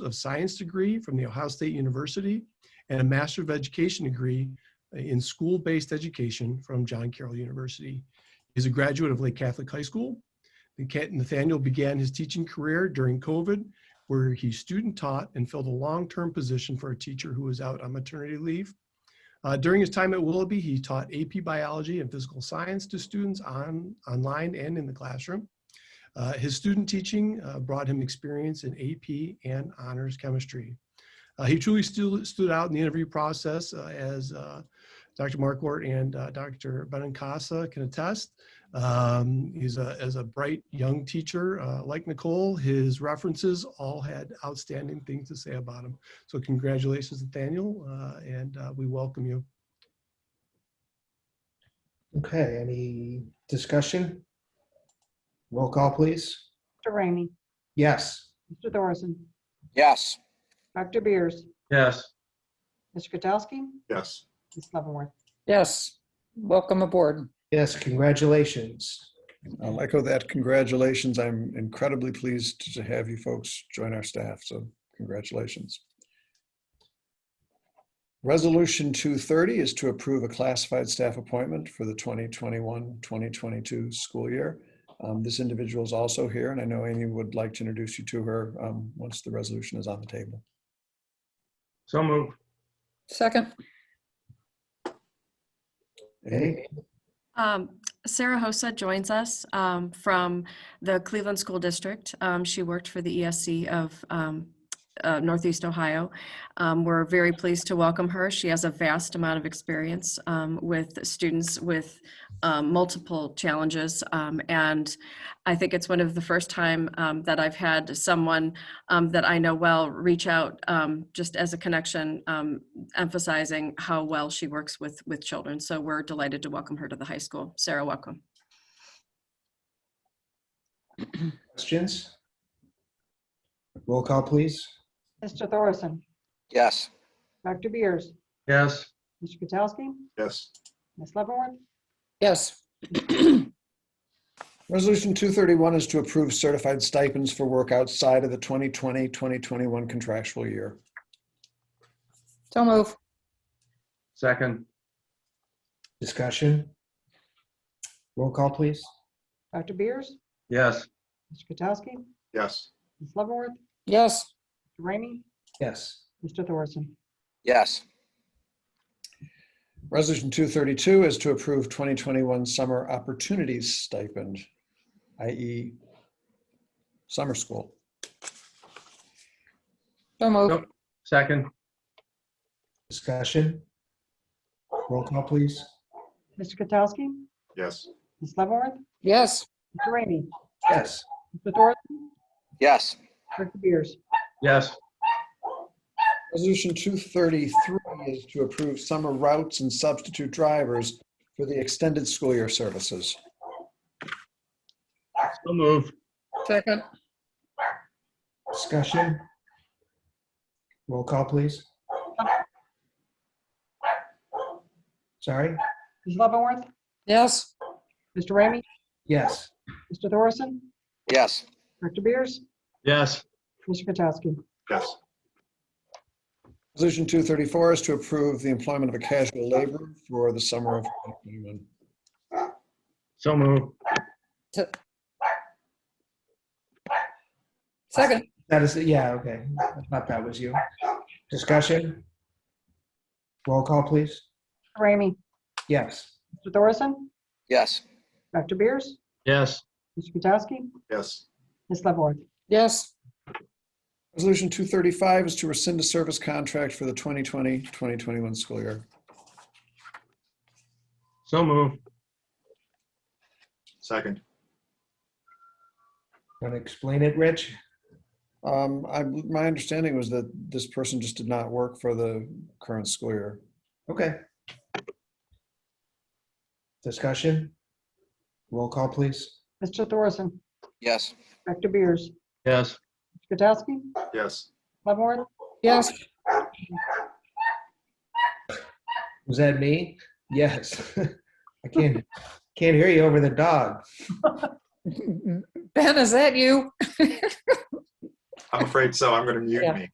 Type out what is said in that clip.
of Science degree from The Ohio State University and a Master of Education degree in School-Based Education from John Carroll University. He's a graduate of Lake Catholic High School. Nat- Nathaniel began his teaching career during COVID, where he student taught and filled a long-term position for a teacher who was out on maternity leave. Uh, during his time at Willoughby, he taught AP Biology and Physical Science to students on, online and in the classroom. Uh, his student teaching uh, brought him experience in AP and honors chemistry. Uh, he truly stu- stood out in the interview process uh, as uh, Dr. Markwart and uh, Dr. Benincasa can attest. Um, he's a, as a bright young teacher uh, like Nicole. His references all had outstanding things to say about him. So congratulations, Nathaniel, uh, and uh, we welcome you. Okay, any discussion? Roll call, please. Mr. Rainey. Yes. Mr. Thorson. Yes. Dr. Beers. Yes. Mr. Katsowski. Yes. Ms. Leavenworth. Yes. Welcome aboard. Yes, congratulations. I'll echo Um, that. Congratulations. I'm incredibly pleased to have you folks join our staff, so congratulations. Resolution 230 is to approve a classified staff appointment for the 2021-2022 school year. Um, This individual is also here, and I know Amy would like to introduce you to her um, once the resolution is on the table. So moved. Second. Amy? Um, Sarah Hosa joins us um, from the Cleveland School District. Um, She worked for the ESC of um, uh, Northeast Ohio. Um, We're very pleased to welcome her. She has a vast amount of experience um, with students with um, multiple challenges. Um, And I think it's one of the first time um, that I've had someone um, that I know well reach out um, just as a connection um, emphasizing how well she works with, with children. So we're delighted to welcome her to the high school. Sarah, welcome. Questions? Roll call, please. Mr. Thorson. Yes. Dr. Beers. Yes. Mr. Katsowski. Yes. Ms. Leavenworth. Yes. Resolution 231 is to approve certified stipends for work outside of the 2020-2021 contractual year. So move. Second. Discussion? Roll call, please. Dr. Beers. Yes. Mr. Katsowski. Yes. Ms. Leavenworth. Yes. Mr. Rainey. Yes. Mr. Thorson. Yes. Resolution 232 is to approve 2021 summer opportunities stipend, i.e. summer school. So Nope. move. Second. Discussion? Roll call, please. Mr. Katsowski. Yes. Ms. Leavenworth. Yes. Mr. Rainey. Yes. Mr. Thorson. Yes. Dr. Beers. Yes. Resolution 233 is to approve summer routes and substitute drivers for the extended school year services. So moved. Second. Discussion? Roll call, please. Sorry? Ms. Leavenworth. Yes. Mr. Rainey. Yes. Mr. Thorson. Yes. Dr. Beers. Yes. Mr. Katsowski. Yes. Resolution 234 is to approve the employment of a casual laborer for the summer of 2021. So moved. Second. That is, yeah, okay. I thought that was you. Discussion? Roll call, please. Mr. Rainey. Yes. Mr. Thorson. Yes. Dr. Beers. Yes. Mr. Katsowski. Yes. Ms. Leavenworth. Yes. Resolution 235 is to rescind a service contract for the 2020-2021 school year. So moved. Second. Want to explain it, Rich? Um, I, my understanding was that this person just did not work for the current school year. Okay. Discussion? Roll call, please. Mr. Thorson. Yes. Dr. Beers. Yes. Katsowski. Yes. Leavenworth. Yes. Was that me? Yes. I can't, can't hear you over the dog. Ben, is that you? I'm afraid so. I'm going to mute Yeah. me.